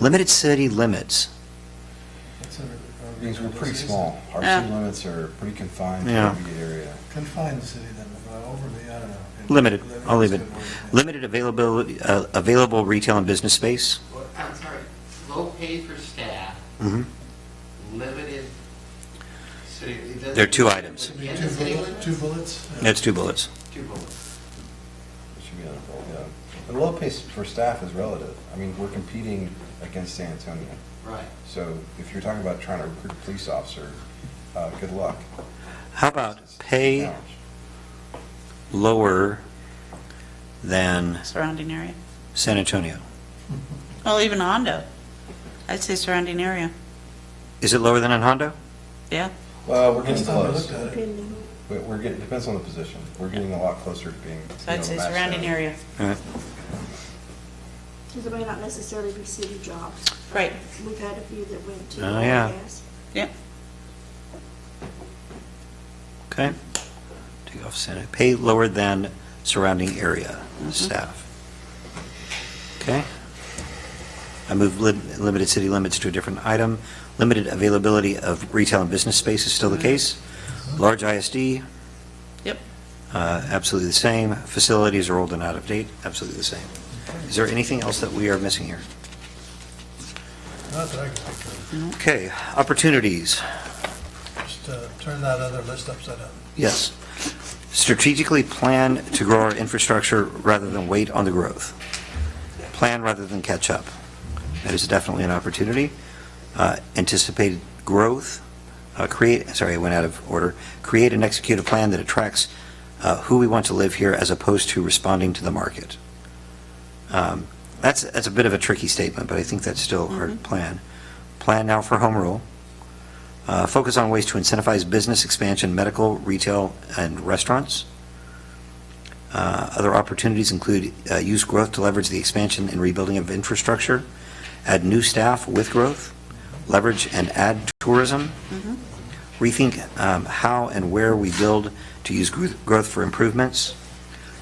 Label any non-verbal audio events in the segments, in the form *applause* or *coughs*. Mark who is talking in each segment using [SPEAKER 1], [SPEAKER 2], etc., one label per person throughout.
[SPEAKER 1] Limited city limits.
[SPEAKER 2] It's a- a-
[SPEAKER 3] Things were pretty small. Our
[SPEAKER 4] Yeah.
[SPEAKER 3] city limits are pretty confined
[SPEAKER 1] Yeah.
[SPEAKER 3] to the area.
[SPEAKER 2] Confined city limit, but overly, I don't know.
[SPEAKER 1] Limited, I'll leave it.
[SPEAKER 2] Limited's a good word, yeah.
[SPEAKER 1] Limited availability, uh, available retail and business space.
[SPEAKER 5] Well, I'm sorry, low pay for staff,
[SPEAKER 1] Mhm.
[SPEAKER 5] limited city. it doesn't-
[SPEAKER 1] There are two items.
[SPEAKER 2] Should be
[SPEAKER 5] Again,
[SPEAKER 2] Two
[SPEAKER 5] city
[SPEAKER 2] bullet-
[SPEAKER 5] limits?
[SPEAKER 2] two bullets? Yeah.
[SPEAKER 1] That's two bullets.
[SPEAKER 5] Two bullets.
[SPEAKER 3] It should be on a roll, yeah. And low pay for staff is relative. I mean, we're competing against San Antonio.
[SPEAKER 5] right.
[SPEAKER 3] So if you're talking about trying to recruit a police officer, uh, good luck.
[SPEAKER 1] How about
[SPEAKER 3] It's a
[SPEAKER 1] Uh, pay
[SPEAKER 3] challenge.
[SPEAKER 1] lower than
[SPEAKER 4] surrounding area.
[SPEAKER 1] San Antonio?
[SPEAKER 4] Well, even Hondo. I'd say surrounding area,
[SPEAKER 1] Is it lower than in Hondo?
[SPEAKER 4] yeah.
[SPEAKER 3] Well, we're getting
[SPEAKER 2] Last time I
[SPEAKER 3] close.
[SPEAKER 2] looked at it,
[SPEAKER 3] But we're getting, depends on the position. We're getting a lot closer to being,
[SPEAKER 4] So
[SPEAKER 3] you know,
[SPEAKER 4] I'd say
[SPEAKER 3] matched
[SPEAKER 4] surrounding
[SPEAKER 3] out.
[SPEAKER 4] area.
[SPEAKER 1] All right.
[SPEAKER 6] Because it may not necessarily be city jobs.
[SPEAKER 4] Right.
[SPEAKER 6] We've had a few that went to.
[SPEAKER 1] Oh,
[SPEAKER 6] oil and
[SPEAKER 1] yeah.
[SPEAKER 6] gas.
[SPEAKER 4] Yep,
[SPEAKER 1] Okay. Take off Santa, pay lower than surrounding area staff. Okay. I move lim- limited city limits to a different item. Limited availability of retail and business space is still the case. Large ISD,
[SPEAKER 4] yep.
[SPEAKER 1] uh, absolutely the same. Facilities are old and out of date, absolutely the same. Is there anything else that we are missing here?
[SPEAKER 2] not that I can think of,
[SPEAKER 1] Okay, opportunities.
[SPEAKER 2] just uh, turn that other list upside down.
[SPEAKER 1] Yes. Strategically plan to grow our infrastructure rather than wait on the growth. Plan rather than catch up. That is definitely an opportunity. Uh, Anticipate growth, uh, create, sorry, I went out of order. Create and execute a plan that attracts uh, who we want to live here as opposed to responding to the market. Um, That's, that's a bit of a tricky statement, but I think that's still our plan. Plan now for home rule. Uh, Focus on ways to incentivize business expansion, medical, retail, and restaurants. Uh, Other opportunities include uh, use growth to leverage the expansion and rebuilding of infrastructure, add new staff with growth, leverage and add tourism, rethink um, how and where we build to use gro- growth for improvements,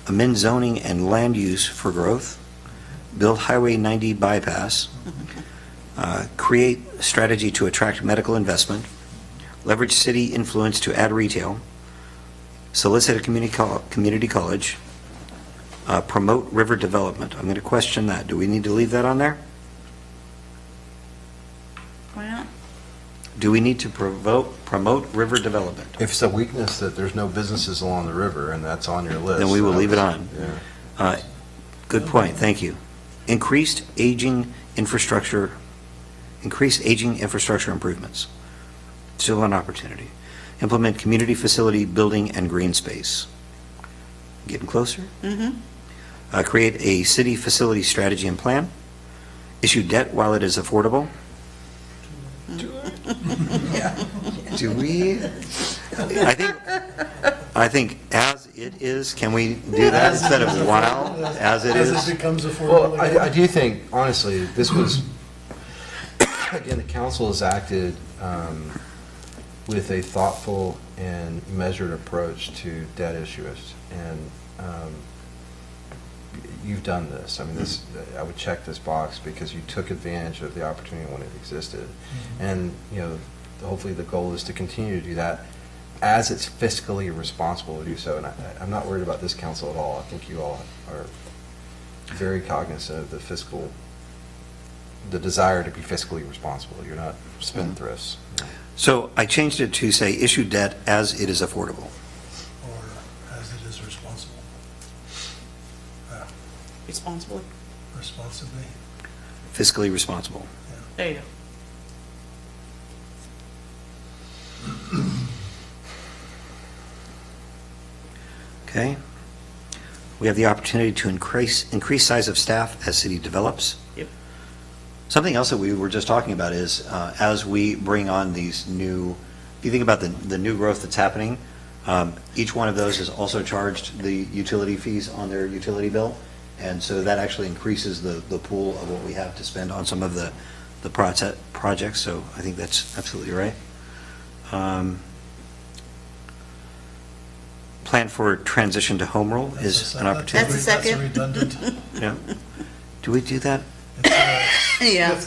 [SPEAKER 1] amend zoning and land use for growth, build Highway 90 bypass, uh, create strategy to attract medical investment, leverage city influence to add retail, solicit a community, col- community college, uh, promote river development. I'm going to question that. Do we need to leave that on there?
[SPEAKER 4] Why not?
[SPEAKER 1] Do we need to provoke, promote river development?
[SPEAKER 3] If it's a weakness that there's no businesses along the river and that's on your list.
[SPEAKER 1] Then we will
[SPEAKER 3] then I
[SPEAKER 1] leave it
[SPEAKER 3] would-
[SPEAKER 1] on.
[SPEAKER 3] Yeah.
[SPEAKER 1] Uh, Good point, thank you. Increased aging infrastructure, increased aging infrastructure improvements. Still an opportunity. Implement community facility building and green space. Getting closer?
[SPEAKER 4] Mm-hmm,
[SPEAKER 1] Uh, Create a city facility strategy and plan. Issue debt while it is affordable. Do we? I think, I think as it is, can we do that instead of while, as it
[SPEAKER 2] As it
[SPEAKER 1] is?
[SPEAKER 2] becomes affordable.
[SPEAKER 3] Well, I, I do think, honestly, this was, *coughs* again, the council has acted um, with a thoughtful and measured approach to debt issuance, and um, you've done this. I mean, this, I would check this box because you took advantage of the opportunity when it existed. And, you know, hopefully the goal is to continue to do that as it's fiscally responsible to do so. And I, I'm not worried about this council at all. I think you all are very cognizant of the fiscal, the desire to be fiscally responsible. You're not spendthrifts.
[SPEAKER 1] So I changed it to say, issue debt as it is affordable.
[SPEAKER 2] Or as it is responsible,
[SPEAKER 4] responsibly.
[SPEAKER 2] responsibly.
[SPEAKER 1] fiscally responsible.
[SPEAKER 4] There you go.
[SPEAKER 1] Okay? We have the opportunity to increase, increase size of staff as city develops.
[SPEAKER 4] Yep.
[SPEAKER 1] Something else that we were just talking about is, uh, as we bring on these new, if you think about the, the new growth that's happening, um, each one of those is also charged the utility fees on their utility bill. And so that actually increases the, the pool of what we have to spend on some of the, the proce- projects. So I think that's absolutely right. Um, Plan for transition to home rule
[SPEAKER 2] That's
[SPEAKER 1] is
[SPEAKER 2] a-
[SPEAKER 1] an opportunity.
[SPEAKER 4] That's a second.
[SPEAKER 2] redundant.
[SPEAKER 1] Yeah. Do we do that
[SPEAKER 2] It's, uh,
[SPEAKER 4] Yeah.